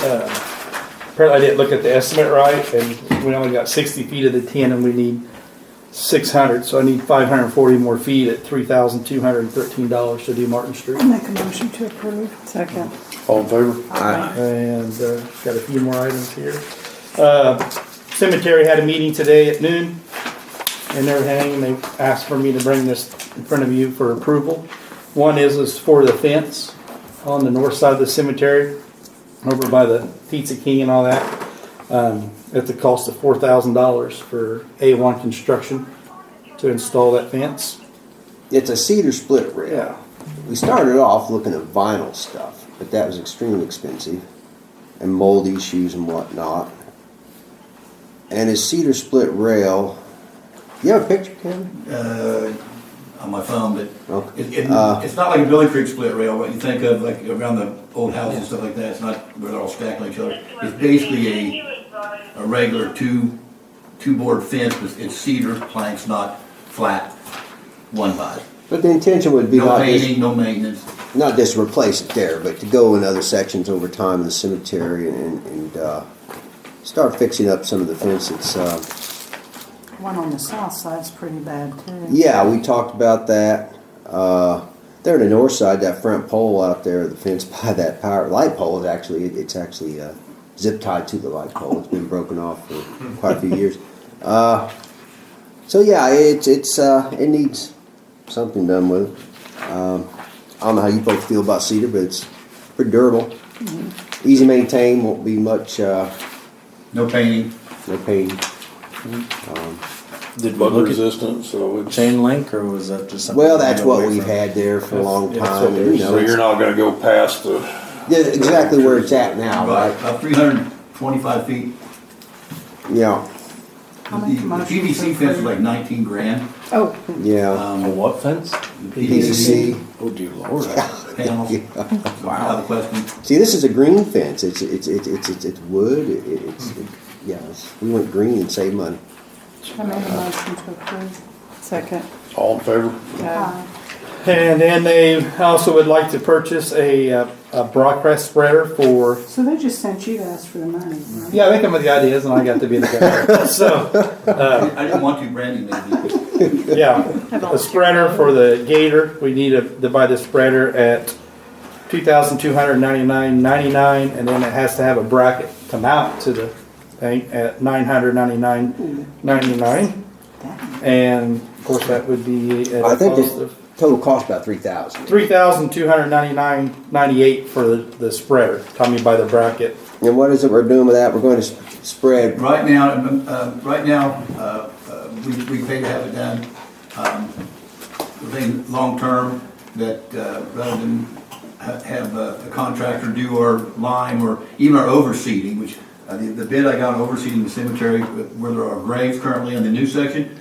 uh, apparently I didn't look at the estimate right, and we only got sixty feet of the ten, and we need six hundred, so I need five hundred and forty more feet at three thousand two hundred and thirteen dollars to do Martin Street. Make a motion to approve. Second. All in favor? And uh, got a few more items here. Uh, Cemetery had a meeting today at noon and everything, and they asked for me to bring this in front of you for approval. One is, is for the fence on the north side of the cemetery, over by the Pizza King and all that, um, at the cost of four thousand dollars for A1 Construction to install that fence. It's a cedar split rail. We started off looking at vinyl stuff, but that was extremely expensive, and mold issues and whatnot. And it's cedar split rail. You have a picture, Kevin? uh, on my phone, but Okay. it, it, Uh, it's not like a Billy Creek split rail, what you think of, like around the old house and stuff like that, it's not where they're all stacked on each other. It's basically a, a regular two, two board fence, but it's cedar planks, not flat, one by. But the intention would be No not just, painting, no maintenance, not just replace it there, but to go in other sections over time in the cemetery and, and uh, start fixing up some of the fence. It's uh, One on the south side's pretty bad too. Yeah, we talked about that. Uh, there on the north side, that front pole out there, the fence by that power light pole is actually it's actually uh, zip tied to the light pole. It's been broken off for quite a few years. Uh, so yeah, it's it's uh, it needs something done with it. Um, I don't know how you folks feel about cedar, but it's pretty durable, Mm-hmm. easy to maintain. Won't be much uh, no painting. no pain. Did we bug look at- resistant, so it's, Chain link, or was that just something? Well, that's we what got we've away had there for a long that's time. what you they're- know, so it's- you're not gonna go past the, Yeah, exactly where it's at now, right? About three hundred and twenty-five feet. Yeah, I'll The make a the motion to PVC fence is approve. like nineteen grand. Oh, yeah. Um, from. A what fence? the PVC. Oh dear lord. Panels, out of the question. See, this is a green fence. It's it's it's it's it's, it's wood. It, it- it's it, yeah. It's, we went green and saved money. I made a motion to approve. second. all in favor? Uh, And then they also would like to purchase a, uh, a broadcast spreader for So they just sent you to ask for the money, right? Yeah, they come with the ideas, and I got to be the guy. so, I didn't want to brand him maybe. yeah, a spreader for the gator. We need a, to buy the spreader at two thousand two hundred ninety nine ninety nine, and then it has to have a bracket to mount to the thing at nine hundred ninety nine ninety nine, and of course that would be at I a think cost the of total cost about three thousand. three thousand two hundred ninety nine ninety eight for the, the spreader. Tommy by the bracket. And what is it we're doing with that? We're going to s- spread. Right now, um, uh, right now, uh, uh, we, we pay to have it done, um, the thing, long-term, that, uh, rather than ha- have uh, a contractor do our lime or even our overseeding, which, uh, the, the bid I got on overseeding the cemetery, where there are graves currently in the new section,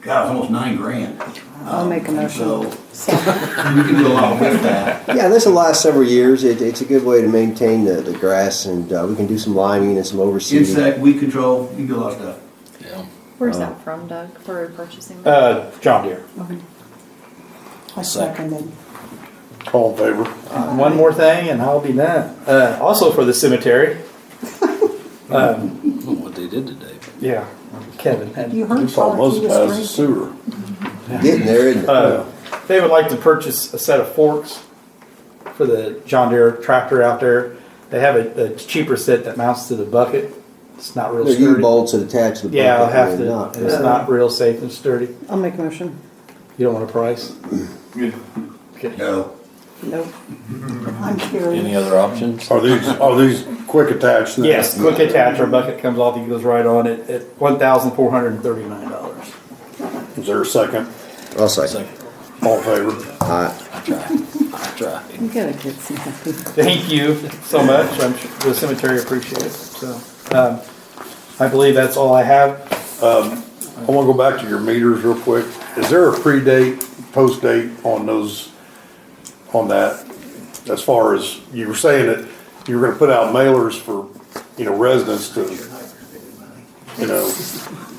God, it's almost nine grand. I'll Um, make a motion. So, Second. we can do a lot with that. Yeah, this will last several years. It, it's a good way to maintain the, the grass, and uh, we can do some liming and some overseeding. Insect, weed control, you can do a lot of stuff. Where's that from, Doug? Where are we purchasing that? Oh. Uh, John Deere. I seconded. All in favor? Uh, One more thing, and I'll be done. Uh, also for the cemetery. Um, from What they did today. Yeah, Kevin. had- You heard It's Charlotte, almost you past the just read. sewer. Getting there, isn't it? Uh, They would like to purchase a set of forks for the John Deere tractor out there. They have a, a cheaper set that mounts to the bucket. It's not real They're U sturdy. bolts that attach to the. Yeah, I'll bucket have and to, not. and it's not real safe and sturdy. I'll make a motion. You don't want a price? No. Nope. I'm Any curious. other options? Are these, are these quick attached now? Yes, quick attach, our bucket comes off, it goes right on it, at one thousand four hundred and thirty-nine dollars. Is there a second? uh, I'll say. Second. All in favor? I try. I try. You gotta get some happy. Thank you so much. I'm sure the cemetery appreciates it. So, um, I believe that's all I have. I wanna go back to your meters real quick. Is there a pre-date, post-date on those, on that? As far as, you were saying that you were gonna put out mailers for, you know, residents to, you know,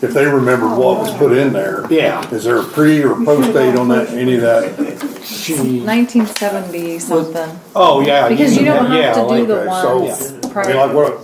if they remembered what was put in there. Yeah. Is there a pre or post-date on that, any of that? She, Nineteen seventy something. oh yeah. Because you mean don't that, have to yeah, do okay, the so- ones I mean, like, what,